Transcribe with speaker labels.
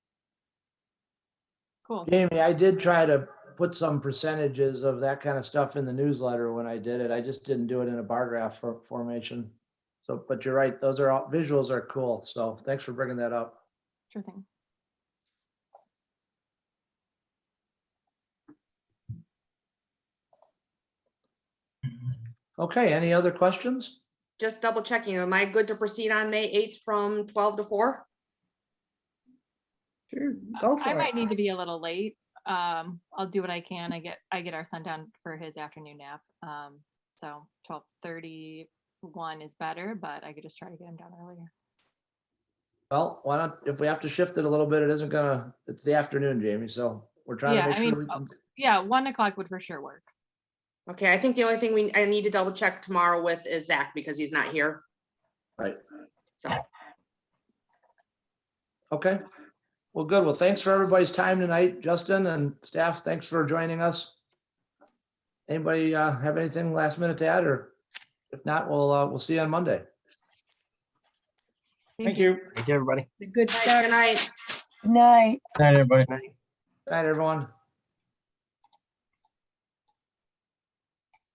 Speaker 1: cool.
Speaker 2: Jamie, I did try to put some percentages of that kind of stuff in the newsletter when I did it. I just didn't do it in a bar graph for- formation. So, but you're right, those are all, visuals are cool. So thanks for bringing that up.
Speaker 1: Sure thing.
Speaker 2: Okay, any other questions?
Speaker 3: Just double checking, am I good to proceed on May eighth from twelve to four?
Speaker 4: Sure, go
Speaker 1: I
Speaker 4: for it.
Speaker 1: might need to be a little late. Um, I'll do what I can. I get, I get our son down for his afternoon nap. Um, so twelve thirty-one is better, but I could just try to get him down earlier.
Speaker 2: Well, why not, if we have to shift it a little bit, it isn't gonna, it's the afternoon, Jamie, so we're trying
Speaker 1: Yeah,
Speaker 2: to make
Speaker 1: I mean,
Speaker 2: sure. we
Speaker 1: uh,
Speaker 2: can-
Speaker 1: Yeah, one o'clock would for sure work.
Speaker 3: Okay, I think the only thing we, I need to double check tomorrow with is Zach because he's not here.
Speaker 2: Right.
Speaker 3: So,
Speaker 2: Okay, well, good. Well, thanks for everybody's time tonight, Justin and staff, thanks for joining us. Anybody uh, have anything last minute to add, or if not, we'll, uh, we'll see you on Monday.
Speaker 5: Thank you. Thank you, everybody.
Speaker 4: Good
Speaker 3: good
Speaker 4: start.
Speaker 3: night.
Speaker 4: Good Night.
Speaker 5: Night, everybody.
Speaker 2: Good Night, everyone.